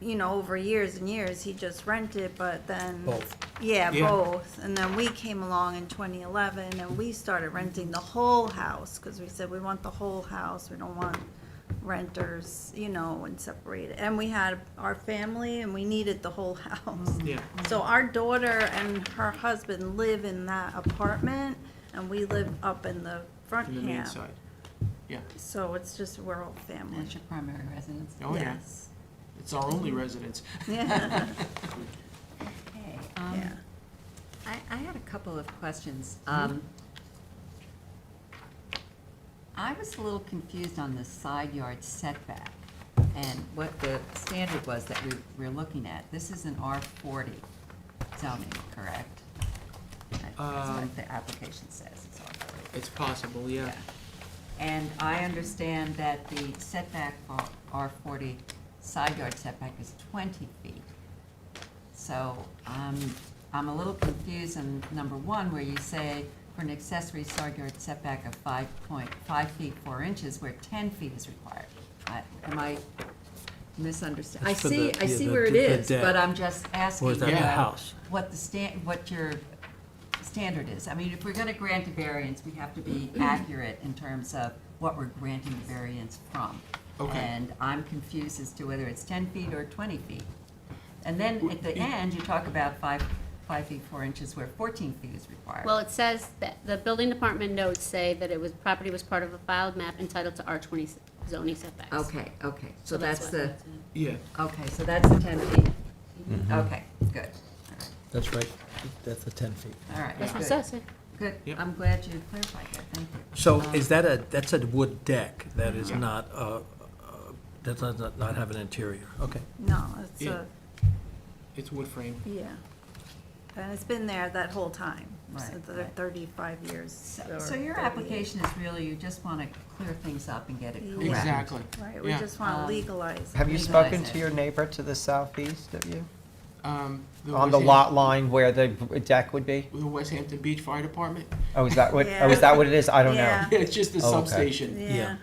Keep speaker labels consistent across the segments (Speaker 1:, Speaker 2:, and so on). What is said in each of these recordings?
Speaker 1: you know, over years and years, he just rented, but then.
Speaker 2: Both.
Speaker 1: Yeah,
Speaker 2: Yeah.
Speaker 1: both. And then we came along in twenty eleven and we started renting the whole house, cause we said we want the whole house, we don't want renters, you know, and separate it. And we had our family and we needed the whole house.
Speaker 2: Yeah.
Speaker 1: So our daughter and her husband live in that apartment and we live up in the front
Speaker 2: in the main
Speaker 1: camp.
Speaker 2: side. Yeah,
Speaker 1: So it's just, we're all family.
Speaker 3: That's your primary residence.
Speaker 2: oh yeah,
Speaker 1: Yes.
Speaker 2: it's our only residence.
Speaker 1: Yeah,
Speaker 3: Okay. um,
Speaker 1: yeah.
Speaker 3: I, I had a couple of questions. Um, I was a little confused on the side yard setback and what the standard was that we we're looking at. This is an R forty zoning, correct? That's
Speaker 2: Um,
Speaker 3: what the application says, it's R forty.
Speaker 2: It's possible, yeah.
Speaker 3: And I understand that the setback for R forty, side yard setback is twenty feet. So, um, I'm a little confused on number one, where you say for an accessory side yard setback of five point, five feet, four inches, where ten feet is required. I- Am I misunderstanding? I
Speaker 4: It's for
Speaker 3: see,
Speaker 4: the-
Speaker 3: I
Speaker 4: yeah,
Speaker 3: see
Speaker 4: the-
Speaker 3: where it
Speaker 4: the- the
Speaker 3: is,
Speaker 4: deck.
Speaker 3: but I'm just asking.
Speaker 4: Or is that a
Speaker 3: uh,
Speaker 4: house?
Speaker 3: What the stan, what your standard is. I mean, if we're gonna grant a variance, we have to be accurate in terms of what we're granting the variance from.
Speaker 2: Okay.
Speaker 3: And I'm confused as to whether it's ten feet or twenty feet. And then at the end, you talk about five, five feet, four inches where fourteen feet is required.
Speaker 5: Well, it says that the building department notes say that it was, property was part of a filed map entitled to R twenty zoning setbacks.
Speaker 3: Okay, okay, so
Speaker 5: So that's
Speaker 3: that's
Speaker 5: what-
Speaker 3: the,
Speaker 2: Yeah,
Speaker 3: okay, so that's the ten feet.
Speaker 2: Mm-hmm.
Speaker 3: Okay, good,
Speaker 4: That's right, that's the 10 feet.
Speaker 3: all right,
Speaker 5: That's what it
Speaker 3: good,
Speaker 5: says, yeah.
Speaker 3: good.
Speaker 2: Yep.
Speaker 3: I'm glad you clarified that, thank you.
Speaker 4: So
Speaker 3: Um,
Speaker 4: is that a, that's a wood deck, that is
Speaker 2: Yeah.
Speaker 4: not, uh, uh, that does not not have an interior, okay.
Speaker 1: No, it's
Speaker 2: Yeah.
Speaker 1: a,
Speaker 2: it's wood frame.
Speaker 1: yeah. And it's been there that whole time, so
Speaker 3: Right,
Speaker 1: the
Speaker 3: right.
Speaker 1: thirty-five years.
Speaker 3: So-
Speaker 1: or
Speaker 3: So your
Speaker 1: 38.
Speaker 3: application is really, you just want to clear things up and get it
Speaker 1: Yeah.
Speaker 3: correct.
Speaker 2: Exactly.
Speaker 1: Right, we
Speaker 2: Yeah.
Speaker 1: just want
Speaker 3: Um,
Speaker 1: to legalize. it.
Speaker 6: Have you
Speaker 3: Legalize
Speaker 6: spoken
Speaker 3: it.
Speaker 6: to your neighbor to the southeast of you?
Speaker 2: Um,
Speaker 6: On
Speaker 2: West
Speaker 6: the
Speaker 2: Ham-
Speaker 6: lot line where the deck would be?
Speaker 2: The West Hampton Beach Fire Department.
Speaker 6: Oh, is that what,
Speaker 1: Yeah.
Speaker 6: oh, is that what it is? I don't know.
Speaker 1: Yeah.
Speaker 2: It's just the
Speaker 6: Oh, okay.
Speaker 2: substation.
Speaker 1: Yeah,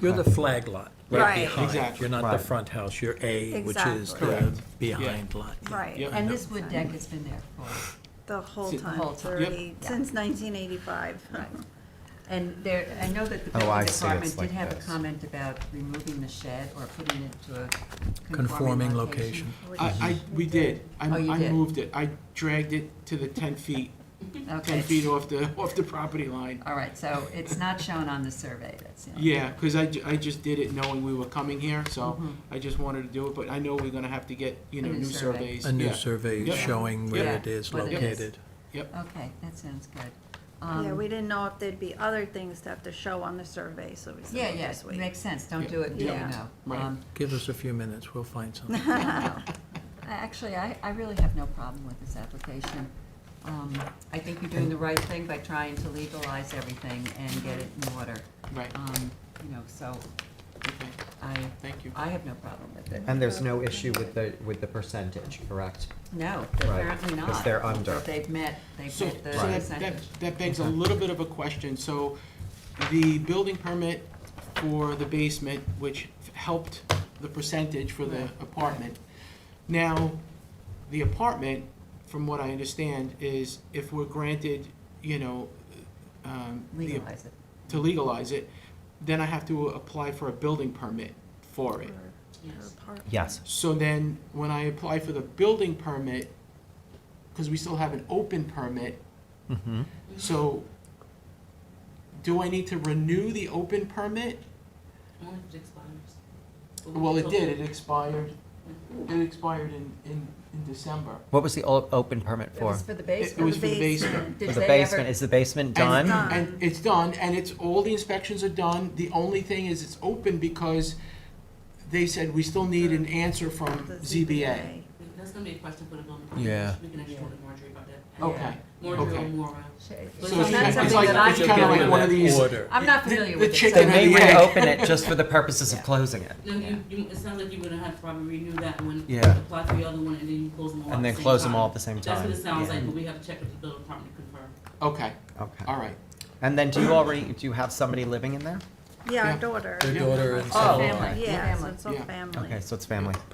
Speaker 4: You're the flag lot,
Speaker 1: Right.
Speaker 4: right behind.
Speaker 2: Exactly.
Speaker 4: You're not the
Speaker 6: Right.
Speaker 4: front house, you're A, which is
Speaker 1: Exactly.
Speaker 4: the
Speaker 2: Correct.
Speaker 4: behind lot. yeah.
Speaker 1: right.
Speaker 2: Yep.
Speaker 3: And this wood deck has been there for,
Speaker 1: The whole
Speaker 2: See,
Speaker 1: time,
Speaker 3: whole time.
Speaker 2: Yep.
Speaker 1: thirty,
Speaker 3: Yeah.
Speaker 1: since nineteen eighty-five.
Speaker 3: right. And there, I know that the
Speaker 6: Oh, I
Speaker 3: building
Speaker 6: see, it's
Speaker 3: department did
Speaker 6: like
Speaker 3: have a
Speaker 6: this.
Speaker 3: comment about removing the shed or putting it to a
Speaker 4: Conforming
Speaker 3: conforming
Speaker 4: location.
Speaker 3: location.
Speaker 2: I, I, we did. I,
Speaker 3: Oh, you
Speaker 2: I
Speaker 3: did.
Speaker 2: moved it. I dragged it to the ten feet, ten feet
Speaker 3: Okay,
Speaker 2: off the, off the property line.
Speaker 3: all right, so it's not shown on the survey, that's the only-
Speaker 2: Yeah, because I, ju- I just did it knowing we were coming here, so I just wanted to do it, but I know we're gonna have to get, you
Speaker 3: Mm-hmm. A
Speaker 2: know,
Speaker 3: new
Speaker 2: new
Speaker 3: survey.
Speaker 2: surveys.
Speaker 4: A new
Speaker 2: Yeah.
Speaker 4: survey
Speaker 2: Yep.
Speaker 4: showing where
Speaker 3: Yeah.
Speaker 4: it is
Speaker 3: Where it is.
Speaker 4: located.
Speaker 3: Okay, that sounds good.
Speaker 1: Yeah,
Speaker 3: Um,
Speaker 1: we didn't know if there'd be other things to have to show on the survey, so we
Speaker 3: Yeah,
Speaker 1: said, we'll
Speaker 3: yeah,
Speaker 1: just wait.
Speaker 3: makes sense, don't
Speaker 2: Yeah.
Speaker 3: do it until you
Speaker 1: Yeah.
Speaker 3: know.
Speaker 2: Right.
Speaker 3: Um,
Speaker 4: Give us a few minutes, we'll find something.
Speaker 3: I- Actually, I, I really have no problem with this application. Um, I think you're doing the right thing by trying to legalize everything and get it in order.
Speaker 2: Right,
Speaker 3: Um, you know, so
Speaker 2: okay,
Speaker 3: I,
Speaker 2: thank you.
Speaker 3: I have no problem with it.
Speaker 6: And there's no issue with the, with the percentage, correct?
Speaker 3: No,
Speaker 6: Right,
Speaker 3: apparently not.
Speaker 6: 'cause they're under.
Speaker 3: But They've met, they've
Speaker 2: So,
Speaker 3: met the
Speaker 2: so that, that,
Speaker 3: percentage.
Speaker 2: that begs a little bit of a question, so the building permit for the basement, which helped the percentage for the apartment. Now, the apartment, from what I understand, is if we're granted, you know, um, the
Speaker 3: Legalize it.
Speaker 2: to legalize it, then I have to apply for a building permit for it.
Speaker 6: Yes.
Speaker 2: So then, when I apply for the building permit, because we still have an open permit,
Speaker 6: Mm-hmm.
Speaker 2: so do I need to renew the open permit? Well, it did, it expired, it expired in, in, in December.
Speaker 6: What was the o- open permit
Speaker 3: It
Speaker 6: for?
Speaker 3: was for the
Speaker 2: It
Speaker 3: basement.
Speaker 2: it was for the basement.
Speaker 3: Did
Speaker 6: For the
Speaker 3: they
Speaker 6: basement,
Speaker 3: ever-
Speaker 6: is the basement
Speaker 2: And-
Speaker 6: done?
Speaker 2: And it's done, and it's, all the inspections are done, the only thing is it's open because they said we still need an answer from
Speaker 1: The
Speaker 2: ZBA.
Speaker 7: That's gonna be a question for the building department.
Speaker 4: Yeah.
Speaker 7: We can actually go to Marjorie about that.
Speaker 2: Okay.
Speaker 7: Marjorie or
Speaker 2: Okay.
Speaker 7: Maura.
Speaker 3: Sh-
Speaker 7: So
Speaker 3: it's
Speaker 2: she-
Speaker 3: not
Speaker 2: it's
Speaker 3: something
Speaker 2: like-
Speaker 3: that I
Speaker 2: it's
Speaker 3: can
Speaker 2: kinda
Speaker 3: do.
Speaker 2: like one of these-
Speaker 4: Order.
Speaker 3: I'm not
Speaker 2: The-
Speaker 3: familiar
Speaker 2: the
Speaker 3: with it. so-
Speaker 6: So
Speaker 2: chicken and
Speaker 6: they
Speaker 2: the egg.
Speaker 6: reopen it just for the purposes of
Speaker 3: Yeah.
Speaker 6: closing it.
Speaker 7: No, you, you, it sounds like you would have probably renew that one.
Speaker 6: Yeah.
Speaker 7: Apply for the other one and then you close them all at
Speaker 6: And
Speaker 7: the
Speaker 6: then
Speaker 7: same
Speaker 6: close them all
Speaker 7: time.
Speaker 6: at the same
Speaker 7: That's
Speaker 6: time.
Speaker 7: what it sounds
Speaker 6: Yeah.
Speaker 7: like, but we have to check with the building department to confirm.
Speaker 2: Okay,
Speaker 6: Okay.
Speaker 2: all right.
Speaker 6: And then do you already, do you have somebody living in there?
Speaker 1: Yeah,
Speaker 2: Yeah.
Speaker 1: our daughter.
Speaker 4: Their
Speaker 2: Yeah.
Speaker 4: daughter and
Speaker 3: Oh,
Speaker 4: son-in-law.
Speaker 3: family.
Speaker 1: Yeah, so
Speaker 3: Family.
Speaker 1: it's all
Speaker 2: Yeah.
Speaker 1: family.
Speaker 6: Okay, so it's family.